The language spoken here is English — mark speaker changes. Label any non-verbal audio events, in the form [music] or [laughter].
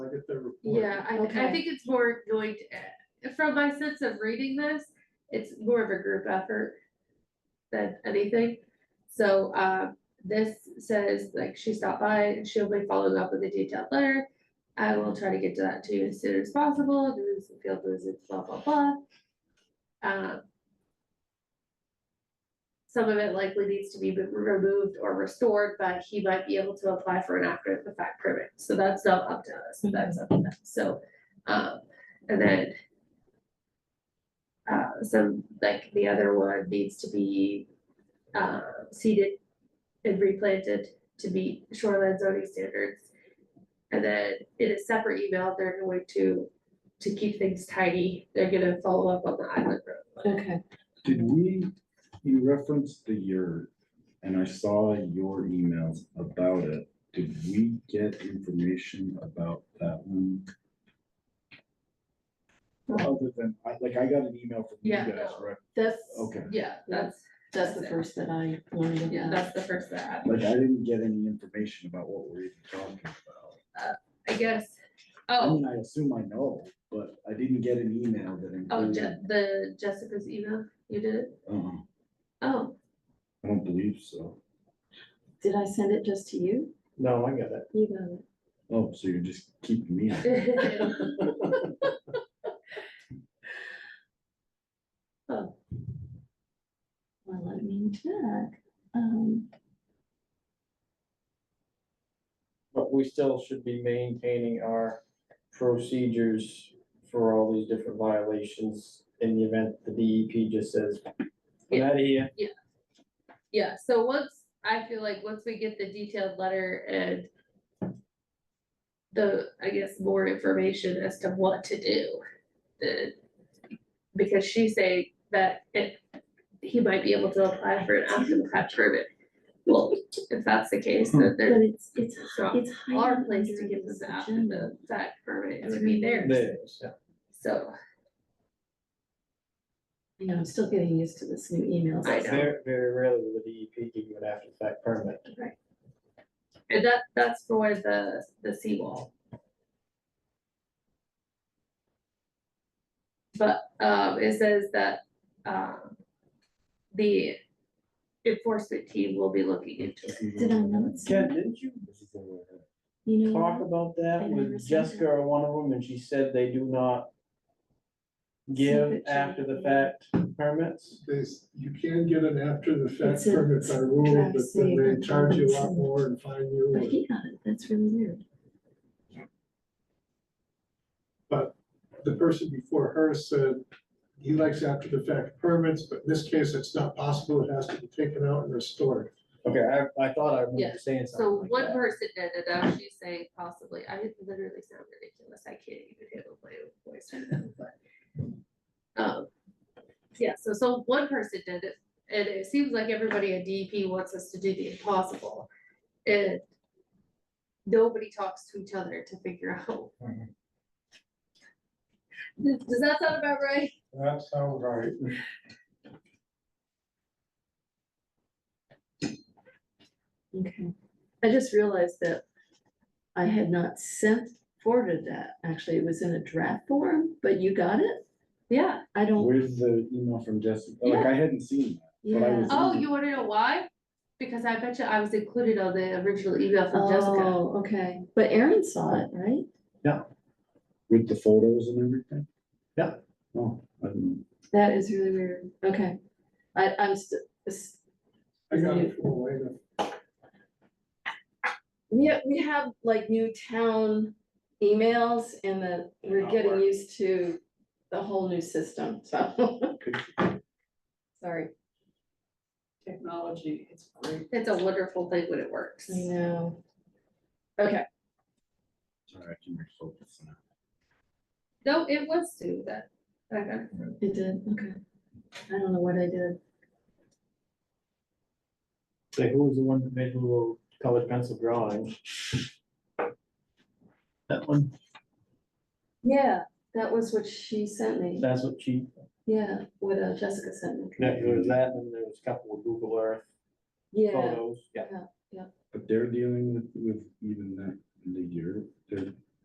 Speaker 1: at their report.
Speaker 2: Yeah, I, th- I
Speaker 3: Okay.
Speaker 2: think it's more going to, from my sense of reading this, it's more of a group effort than anything. So, um, this says, like, she stopped by and she'll be following up with a detailed letter. I will try to get to that to you as soon as possible, there is some field visits, blah, blah, blah. Um, Some of it likely needs to be removed or restored, but he might be able to apply for an after the fact permit, so that's not up to us, that's up to them, so. Um, and then. Uh, some, like, the other one needs to be, uh, seeded and replanted to meet shoreline zoning standards. And then in a separate email, they're going to, to keep things tidy, they're gonna follow up on the island road. one.
Speaker 3: Okay,
Speaker 4: Did we, you referenced the yurt, and I saw your emails about it. Did we get information about that one? Other than, I, like, I got an email from you
Speaker 2: Yeah,
Speaker 4: guys,
Speaker 2: no.
Speaker 4: right?
Speaker 3: that's,
Speaker 4: Okay,
Speaker 2: Yeah, that's,
Speaker 3: that's the first that I learned of
Speaker 2: yeah,
Speaker 3: that.
Speaker 2: that's the first that happened.
Speaker 4: like, I didn't get any information about what we're even talking about.
Speaker 2: I guess,
Speaker 4: I
Speaker 2: oh,
Speaker 4: mean, I assume I know, but I didn't get an email that
Speaker 2: oh,
Speaker 4: included.
Speaker 2: Je- the Jessica's email, you did it,
Speaker 4: Uh-uh,
Speaker 2: oh,
Speaker 4: I don't believe so.
Speaker 3: Did I send it just to you?
Speaker 1: No, I get it.
Speaker 3: You got it.
Speaker 4: Oh, so you're just keeping me. out.
Speaker 2: [laughs] Oh,
Speaker 3: Well, let me check. Um,
Speaker 5: But we still should be maintaining our procedures for all these different violations in the event the DEP just says, I'm out of here.
Speaker 2: yeah, so once, I feel like once we get the detailed letter and the, I guess, more information as to what to do, then, because she's saying that it, he might be able to apply for an after the fact permit. Well, if that's the case, then
Speaker 3: but
Speaker 2: there's,
Speaker 3: it's, it's,
Speaker 2: it's not
Speaker 3: Hmm. it's
Speaker 2: our
Speaker 3: higher
Speaker 2: place to
Speaker 3: under
Speaker 2: give
Speaker 3: this
Speaker 2: them the after
Speaker 3: agenda.
Speaker 2: the fact permit, it would be theirs,
Speaker 5: There, so,
Speaker 2: so.
Speaker 3: You know, I'm still getting used to this new email.
Speaker 2: I know.
Speaker 5: very, very rarely will the DEP give you an after the fact permit.
Speaker 2: And that, that's for the, the seawall. But, um, it says that, um, the enforcement team will be looking into it.
Speaker 3: Did I not
Speaker 5: Ken,
Speaker 3: send?
Speaker 5: didn't you
Speaker 4: This is the way I-
Speaker 3: You know,
Speaker 5: talk
Speaker 3: what?
Speaker 5: about
Speaker 3: I
Speaker 5: that
Speaker 3: never
Speaker 5: with
Speaker 3: said
Speaker 5: Jessica
Speaker 3: that.
Speaker 5: or one of them, and she said they do not give
Speaker 3: Secret
Speaker 5: after the
Speaker 3: check.
Speaker 5: fact permits?
Speaker 1: There's, you can get an after the fact
Speaker 3: It's a-
Speaker 1: permit by rule,
Speaker 3: drive
Speaker 1: but then
Speaker 3: safe,
Speaker 1: they charge you a lot
Speaker 3: it's-
Speaker 1: more and fine
Speaker 3: but
Speaker 1: you.
Speaker 3: he got it. That's really weird.
Speaker 1: The person before her said he likes after the fact permits, but in this case, it's not possible. It has to be taken out and restored.
Speaker 5: Okay, I, I thought I
Speaker 2: Yeah,
Speaker 5: remember saying something
Speaker 2: So
Speaker 5: like
Speaker 2: one
Speaker 5: that.
Speaker 2: person did it, now she's saying possibly, I literally sound ridiculous, I can't even handle my own voice right now, but. Um, yeah, so, so one person did it, and it seems like everybody at DEP wants us to do the impossible, and. Nobody talks to each other to figure out.
Speaker 5: Mm-hmm.
Speaker 2: Does
Speaker 1: Mhm.
Speaker 2: does that sound about right?
Speaker 1: That sounds right.
Speaker 3: Okay. I just realized that I had not sent forwarded that. Actually, it was in a draft form, but you got it?
Speaker 2: Yeah,
Speaker 3: I don't,
Speaker 4: Where's the email from Jessica? Like, I hadn't seen But I
Speaker 3: yeah.
Speaker 4: was-
Speaker 2: oh, you wanna know why? Because I bet you I was included on the original email from Jessica.
Speaker 3: Oh, okay. But Aaron saw it, right?
Speaker 4: with the photos and everything?
Speaker 5: Yeah.
Speaker 4: Oh, I didn't,
Speaker 3: That is really weird. Okay. I, I'm, st- s-
Speaker 1: I got it from Elena.
Speaker 3: we have, we have like new town emails and the, we're
Speaker 4: Not
Speaker 3: getting
Speaker 4: working.
Speaker 3: used to the whole new system, so. Sorry.
Speaker 6: technology, it's great.
Speaker 2: It's a wonderful thing when it works.
Speaker 3: I know. Okay,
Speaker 4: sorry, I can refocus now.
Speaker 2: No, it was Sue that, that got it.
Speaker 3: it did, okay. I don't know what I did.
Speaker 5: Say, who was the one that made the little colored pencil drawing? That one,
Speaker 3: Yeah, that was what she sent me.
Speaker 5: that's what she,
Speaker 3: Yeah, what uh, Jessica sent me.
Speaker 5: there was that, and there was a couple of Google Earth
Speaker 3: Yeah,
Speaker 5: photos, yeah.
Speaker 4: But they're dealing with, with even that, the year, they're